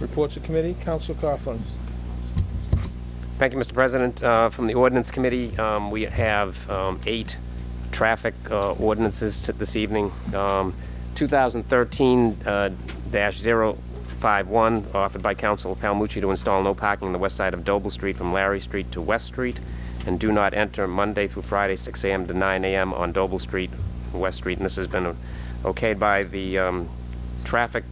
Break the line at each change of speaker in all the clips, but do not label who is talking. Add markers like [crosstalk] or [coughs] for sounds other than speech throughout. Reports of committee, Council Coughlin.
Thank you, Mr. President. Uh, From the Ordinance Committee, um, we have um, eight traffic uh, ordinances to- this evening. Um, uh, 2013-051, offered by Council Palmucci to install no parking on the west side of Doble Street from Larry Street to West Street, and do not enter Monday through Friday, 6 a.m. to 9 a.m. on Doble Street, West Street. And this has been okayed by the um, Traffic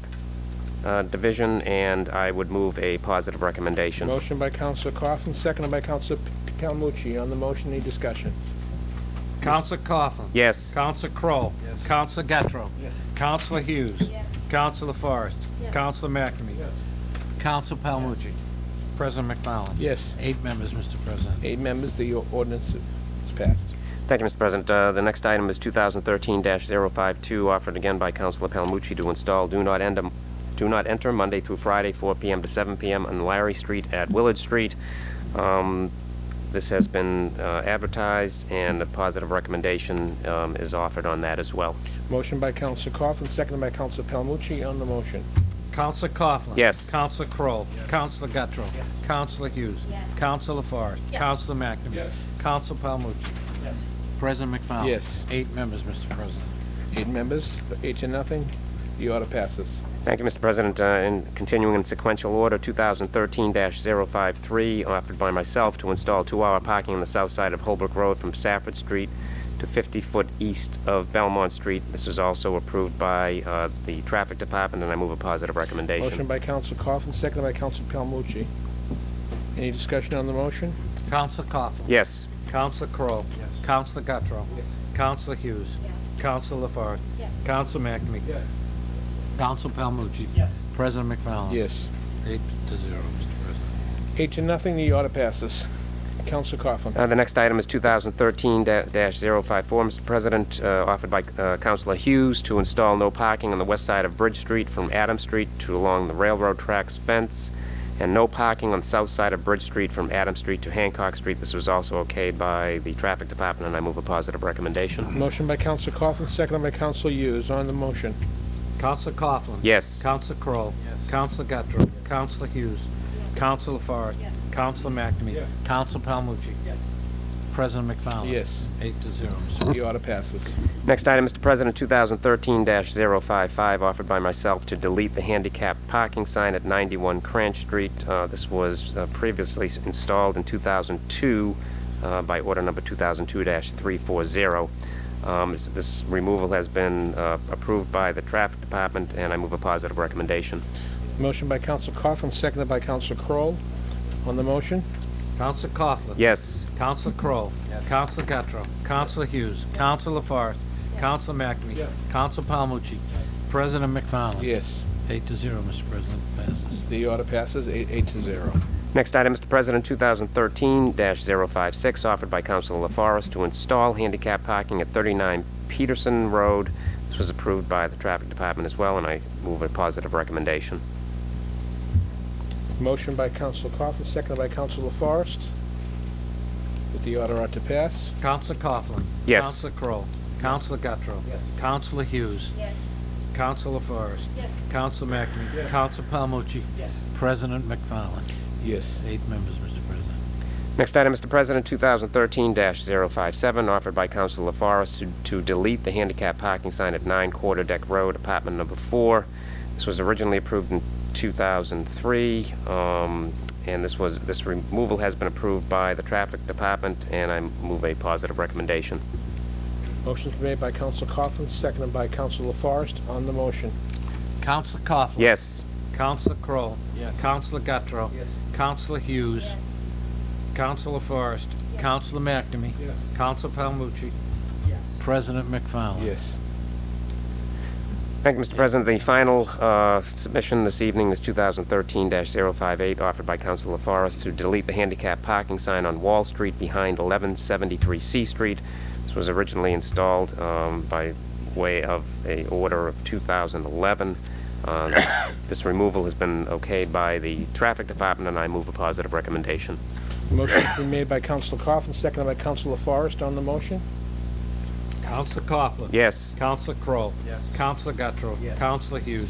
uh, Division, and I would move a positive recommendation.
Motion by Council Coughlin, seconded by Council Calmucci. On the motion, any discussion?
Counselor Coughlin.
Yes.
Counselor Crowe. Yes. Counselor Gattro. Yes. Counselor Hughes.
Yes.
Counselor Forrest.
Yes.
Counselor McNamee. Yes. Counselor Palmucci. President McFarland.
Yes.
Eight members, Mr. President.
Eight members, the ordinance is passed.
Thank you, Mr. President. Uh, The next item is 2013-052, offered again by Councilor Palmucci to install do not end, do not enter Monday through Friday, 4 PM to 7 PM on Larry Street at Willard Street. Um, This has been uh, advertised, and a positive recommendation um, is offered on that as well.
Motion by Council Coughlin, seconded by Council Calmucci. On the motion,
Counselor Coughlin.
Yes.
Counselor Crowe. Counselor Gattro. Counselor Hughes.
Yes.
Counselor Forrest.
Yes.
Counselor McNamee. Yes. Counselor Palmucci. Yes. President McFarland.
Yes.
Eight members, Mr. President.
eight members, eight to nothing, the order passes.
Thank you, Mr. President. Uh, And continuing in sequential order, 2013-053, offered by myself to install two-hour parking on the south side of Holbrook Road from Safford Street to 50-foot east of Belmont Street. This is also approved by uh, the Traffic Department, and I move a positive
Motion
recommendation.
by Council Coughlin, seconded by Council Calmucci. Any discussion on the motion?
Counselor Coughlin.
Yes.
Counselor Crowe. Yes. Counselor Gattro. Yes. Counselor Hughes.
Yes.
Counselor Lafarge.
Yes.
Counselor McNamee. Yes. Counselor Palmucci. Yes. President McFarland.
Yes.
Eight to zero, Mr. President.
Eight to nothing, the order passes. Council Coughlin.
Uh, The next item is 2013-054, Mr. President, uh, offered by uh, Councilor Hughes to install no parking on the west side of Bridge Street from Adams Street to along the railroad tracks fence, and no parking on the south side of Bridge Street from Adams Street to Hancock Street. This was also okayed by the Traffic Department, and I move a positive recommendation.
Motion by Council Coughlin, seconded by Council Hughes. On the motion,
Counselor Coughlin.
Yes.
Counselor Crowe. Yes. Counselor Gattro. Counselor Hughes. Counselor Lafarge.
Yes.
Counselor McNamee. Yes. Counselor Palmucci. Yes. President McFarland.
Yes.
Eight to zero, Mr.
the order passes.
Next item, Mr. President, 2013-055, offered by myself to delete the handicap parking sign at 91 Cranch Street. Uh, This was uh, previously s- installed in 2002 uh, by order number 2002-340. Um, is- This removal has been uh, approved by the Traffic Department, and I move a positive recommendation.
Motion by Council Coughlin, seconded by Council Kroll. On the motion,
Counselor Coughlin.
Yes.
Counselor Crowe. Counselor Gattro. Counselor Hughes. Counselor Forrest. Counselor McNamee. Counselor Palmucci. President McFarland.
yes,
Eight to zero, Mr. President, passes.
the order passes, eight, eight to zero.
Next item, Mr. President, 2013-056, offered by Councilor LaForest to install handicap parking at 39 Peterson Road. This was approved by the Traffic Department as well, and I move a positive recommendation.
Motion by Council Coughlin, seconded by Council LaForest. That the order ought to pass.
Counselor Coughlin.
Yes.
Counselor Crowe. Counselor Gattro. Yes. Counselor Hughes.
Yes.
Counselor Forrest.
Yes.
Counselor McNamee. Counselor Palmucci. Yes. President McFarland.
Yes,
Eight members, Mr. President.
Next item, Mr. President, 2013-057, offered by Councilor LaForest to- to delete the handicap parking sign at 9 Quarter Deck Road, apartment number 4. This was originally approved in 2003, um, and this was, this removal has been approved by the Traffic Department, and I move a positive recommendation.
motion's made by Council Coughlin, seconded by Council LaForest. On the motion,
Counselor Coughlin.
Yes.
Counselor Crowe. Yes. Counselor Gattro. Yes. Counselor Hughes.
Yes.
Counselor Forrest.
Yes.
Counselor McNamee. Yes. Counselor Palmucci. Yes. President McFarland.
yes.
Thank you, Mr. President. The final uh, submission this evening is 2013-058, offered by Councilor Forrest to delete the handicap parking sign on Wall Street behind 1173 C Street. This was originally installed um, by way of a order of 2011. Uh, this- [coughs] This removal has been okayed by the Traffic Department, and I move a positive recommendation.
Motion's been made by Council Coughlin, seconded by Council LaForest. On the motion,
Counselor Coughlin.
Yes.
Counselor Crowe. Yes. Counselor Gattro. Yes. Counselor Hughes.